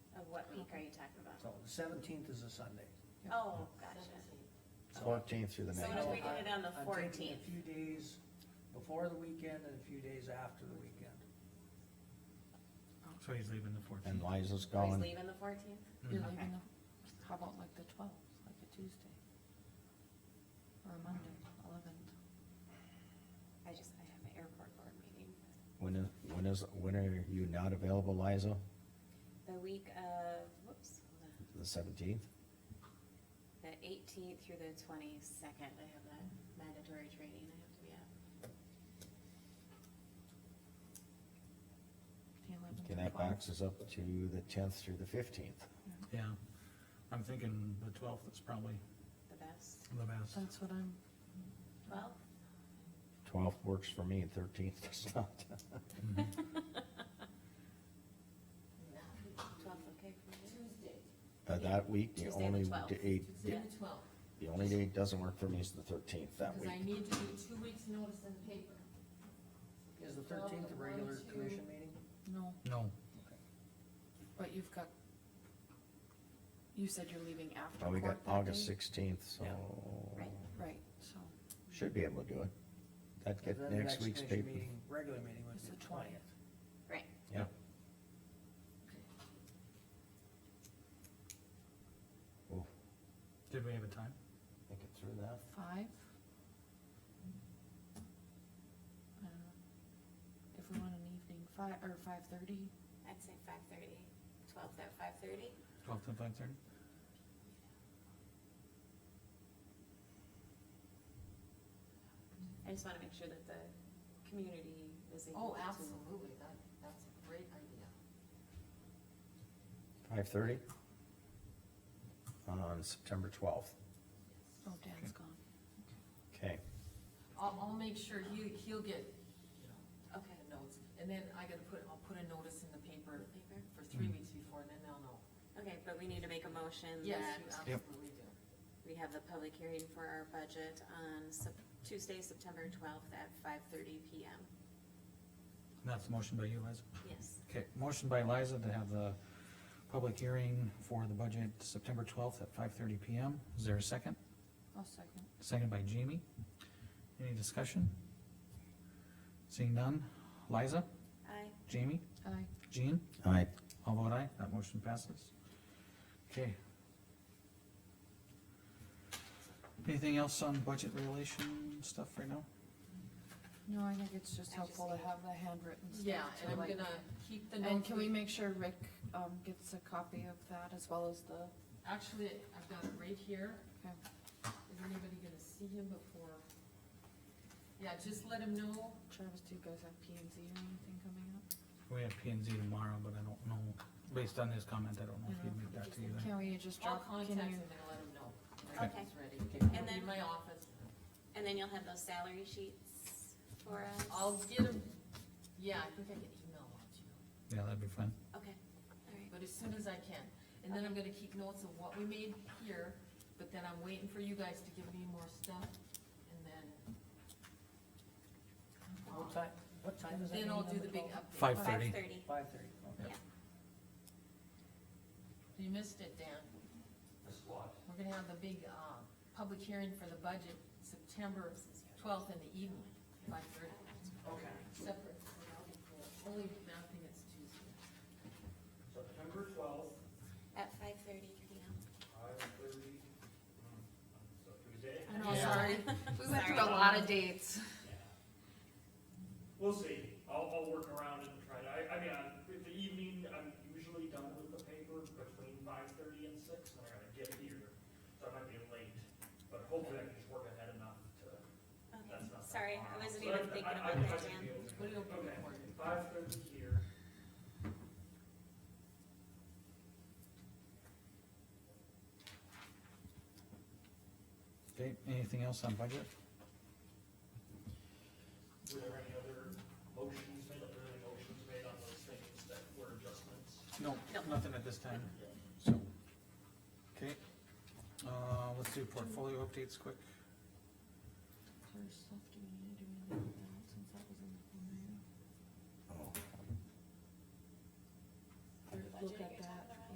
are you talking about? So the seventeenth is a Sunday. Oh, gotcha. So- fourteenth through the So nineteenth. what if we did it on the I'm taking fourteenth? A few days before the weekend and a few days after the weekend. So he's leaving the And fourteenth. He's Liza's going, leaving the fourteenth? You're Okay. leaving, the- how about like the twelfth, like a Tuesday? Or a Monday, eleventh, I just, I have an airport board meeting. when is, when is, when are you not available, Liza? The week of, whoops, hold on. The seventeenth? the eighteenth through the twenty-second, I have that mandatory training I have to be at. the eleventh Okay, and that twelfth. box is up to the tenth through the fifteenth. Yeah, I'm thinking the twelfth is probably The best. the best. That's what I'm, Well, Twelfth works for me, thirteenth does not. Mm-hmm. twelfth, okay for you? Tuesday, Uh, that week, the Tuesday the only 12th. day, Tuesday the twelfth, the only day it doesn't work for me is the thirteenth that because I week. need to do two weeks' notice in the paper. Is the thirteenth a regular One, two. commission meeting? no, No, but you've got, you said you're leaving after Oh, we court got that day? August sixteenth, so Yeah. Right. Right, so, should be able to do it. That Then the get next week's commission paper. meeting- Regular meeting would It's be the the twentieth. Right. Yeah, did we have a time? think it through that. five? I don't know. Uh, If we want an evening, five, or five-thirty, I'd say five thirty. Twelfth at five thirty? Twelfth and five thirty? I just wanna make sure that the community is able Oh, to. absolutely, that, that's a great idea. Five thirty? On September twelfth, oh, Dan's gone. okay. I'll, I'll make sure he, he'll get, you know, Okay. the notes, and then I gotta put, I'll put a notice in the paper Paper? for three Mhm. weeks before, and then they'll know. Okay, but we need to make a motion Yes, that you Yep. absolutely do. we have the public hearing for our budget on Sep- Tuesday, September twelfth at five thirty PM. That's the motion by you, Liza? Yes. Okay, motion by Liza to have the public hearing for the budget September twelfth at five thirty PM. Is there a second? I'll second. Second by Jamie. Any discussion? Seeing none. Liza, Aye. Jamie, Aye. Jean, Aye. all vote aye, that motion passes. Okay. Anything else on budget relation stuff right now? No, I think it's just I helpful to just- have the handwritten stuff. Yeah, to, and I'm like- gonna keep the notes. And can we make sure Rick, um, gets a copy of that as well as the, Actually, I've got it right here. Okay. Is anybody gonna see him before? Yeah, just let him know. Travis, do you guys have P and Z or anything coming up? We have P and Z tomorrow, but I don't know, based on his comment, I don't know if he'd make that to you then. Can we just I'll drop, contact can him you, and let him know. Okay. Like, he's ready. And He'll be then- In my office. And then you'll have those salary sheets for us? I'll get him, yeah, I think I can email him to you, Yeah, that'd be fun. Okay, all right. but as soon as I can. And then I'm gonna keep notes of what we made here, but then I'm waiting for you guys to give me more stuff, and then. What time, what time is that? Then I'll do the big update. Five Five thirty. thirty. Five thirty, okay. You missed it, Dan. We're gonna have the big, uh, public hearing for the budget, September twelfth in the evening, five thirty. Okay. Separate. Only mapping it's Tuesday. September twelfth, At five thirty PM. five thirty, so Tuesday, I know, Yeah. sorry, we went through a Sorry. lot of dates. we'll see, I'll, I'll work around and try to, I, I mean, I- with the evening, I'm usually done with the paper between five thirty and six, when I gotta get here, so I might be late, but hopefully I can just work ahead enough to, Okay, that's not. that sorry, far. I wasn't So even I- thinking I- about I- I that, should Dan. be able to- But it'll be Okay, recorded. five thirty here. Okay, anything else on budget? Were there any other motions made, other motions made on those things that were adjustments? No, No. nothing at this time, so. Okay, uh, let's do portfolio updates quick. There's stuff, do we need to do anything with that since that was in the Oh, Look at